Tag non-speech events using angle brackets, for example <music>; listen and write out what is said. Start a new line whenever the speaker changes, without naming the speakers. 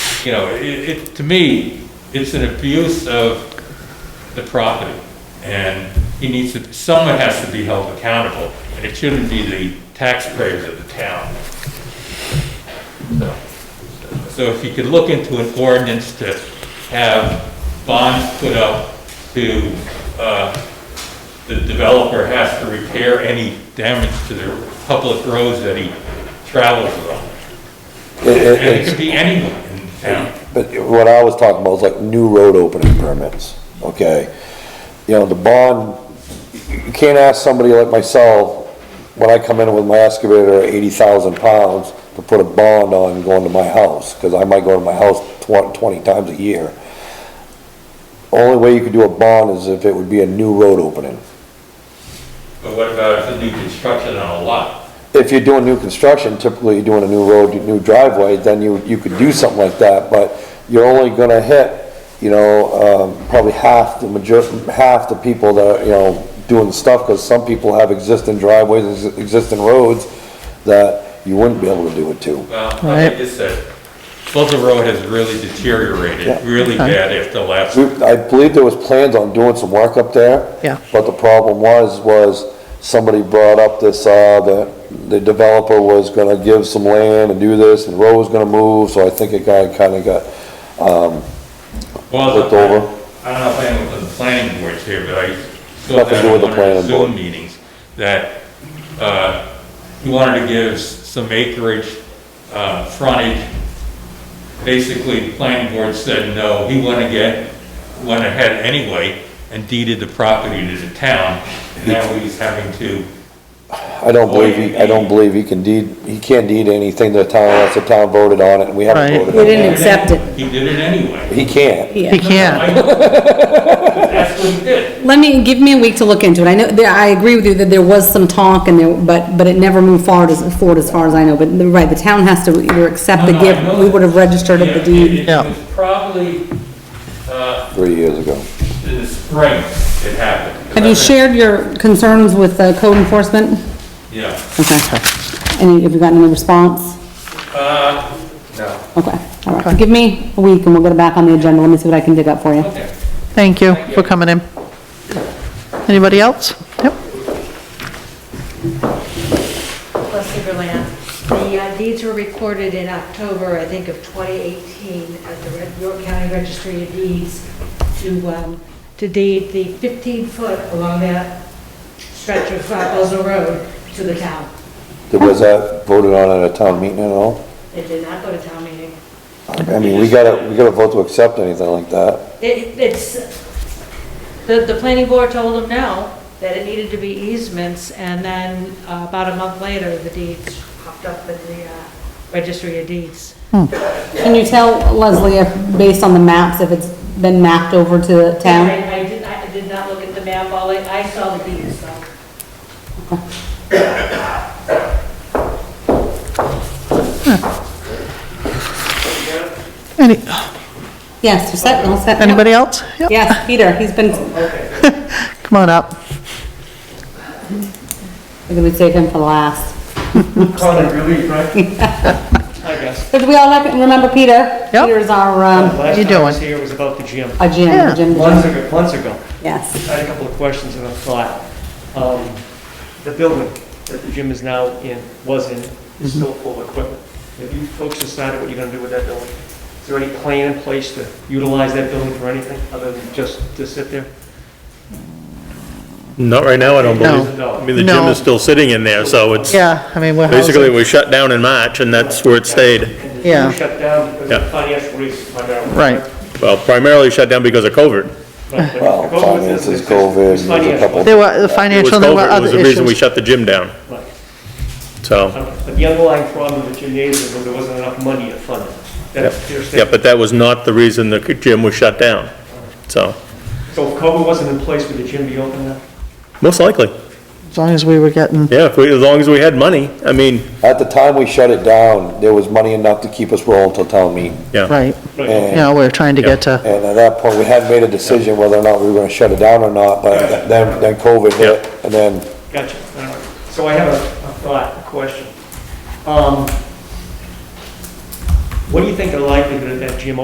you know, it, it, to me, it's an abuse of the property. And he needs to, someone has to be held accountable, and it shouldn't be the taxpayers of the town. So- So if you could look into an ordinance to have bonds put up to, uh, the developer has to repair any damage to the public roads that he travels on.
It- it-
And it
it's-
could be anyone in town.
But what I was talking about was like new road opening permits, okay? You know, the bond, you can't ask somebody like myself, when I come in with my excavator at eighty thousand pounds, to put a bond on going to my house, because I might go to my house tw- twenty times a year. Only way you could do a bond is if it would be a new road opening.
But what about if the new construction on a lot?
if you're doing new construction, typically you're doing a new road, new driveway, then you, you could do something like that, but you're only gonna hit, you know, um, probably half the major, half the people that, are, you know, doing stuff, because some people have existing driveways, ex- existing roads, that you wouldn't be able to do it to.
Well, like I just said, Pleasant Road has really
Yeah.
deteriorated, really bad after the last,
We, I believe there was plans on doing some work up there.
Yeah.
But the problem was, was somebody brought up this, uh, that the developer was gonna give some land and do this, and the road was gonna move, so I think it got, kinda got
well, I
Looked over.
I don't know if anyone from the planning board's here, but I saw
Nothing to
that
do
in one of
with the
the
planning board.
Zoom meetings, that, uh, he wanted to give s- some acreage, uh, frontage. Basically, the planning board said no, he went again, went ahead anyway, and deeded the property to the town, and now he's having to
I don't believe, he- I don't believe he can deed, he can't deed anything to the town unless the town voted on it, and we haven't
Right.
voted
We
on
didn't
it.
accept it.
He did it anyway.
He can't.
He
Yeah.
can't.
I know. <laughs> That's what he did.
Let me, give me a week to look into it. I know, there- I agree with you that there was some talk and there, but, but it never moved forward as, forward as far as I know. But you're right, the town has to either accept the
No, no, I
gift,
know
we
that.
would have registered of the deed.
It- It
Yeah.
was probably, uh,
Three years ago.
in the spring it happened. 'cause
Have
I
you
think-
shared your concerns with uh, code enforcement?
Yeah.
Okay. And have you gotten any response?
Uh, no.
Okay, all right. Give me a week and we'll get it back on the agenda. Let me see what I can dig up for you.
Okay.
Thank you for coming in. Anybody else? Yep.
Leslie Berlant. The uh, deeds were recorded in October, I think, of 2018 at the Red- York County Registry of Deeds to, um, to deed the 15-foot along that stretch of Buzzell Road to the town.
There was that voted on at a town meeting at all?
It did not go to town meeting.
I mean, we gotta, we gotta vote to accept anything like that.
It, it's, the, the planning board told them no, that it needed to be easements, and then uh, about a month later, the deeds popped up in the uh, Registry of Deeds.
Can you tell Leslie if, based on the maps, if it's been mapped over to the town?
I I did, I did not look at the map, all I, I saw the deeds, so.
Any,
Yes, you're set, all set.
anybody else? Yep,
Yes, Peter, he's been,
come on up.
we're gonna save him for last.
Chronic
<laughs>
relief, right? I guess.
Because we all like- remember Peter.
Yep.
Peter's our, um,
Last
you
time I was
doing?
here was about the gym.
our gym,
Yeah.
the gym, the
Months
gym.
ago, months ago, I
Yes.
had a couple of questions and I thought, um, the building that the gym is now in, was in,
Mm-hmm.
is still full of equipment. Have you folks decided what you're gonna do with that building? Is there any plan in place to utilize that building for anything other than just to sit there?
Not right now, I don't
No.
believe. I mean, the gym
No.
is still sitting in there, so it's,
Yeah, I mean, we're
basically,
housing.
we shut down in March, and that's where it stayed.
And the
Yeah.
gym shut down because
Yeah.
of financial reasons, my darling.
Right.
Well, primarily shut down because of COVID.
Right, but
Well,
the COVID was-
finances,
was- was
COVID, there's a
financial.
couple-
There were the
It was
financial, there were
COVID, it
other
was the reason we
issues.
shut the gym down,
Right.
so.
Uh, But the underlying problem with the gymnasium was there wasn't enough money to fund it. That's their
Yeah,
statement.
but that was not the reason the gym was shut down, so,
So if COVID wasn't in place, would the gym be open now?
most likely.
As long as we were getting,
Yeah, if we, as long as we had money, I mean,
At the time we shut it down, there was money enough to keep us rolling till town meeting.
yeah.
right,
Right.
Oh.
you
And
know, we we're trying to get to,
And at that point, we hadn't made a decision whether or not we were gonna shut it down or not, but then, then COVID hit, and then
Gotcha. All right. So I have a a thought, a question. Um, What do you think the likelihood of that gym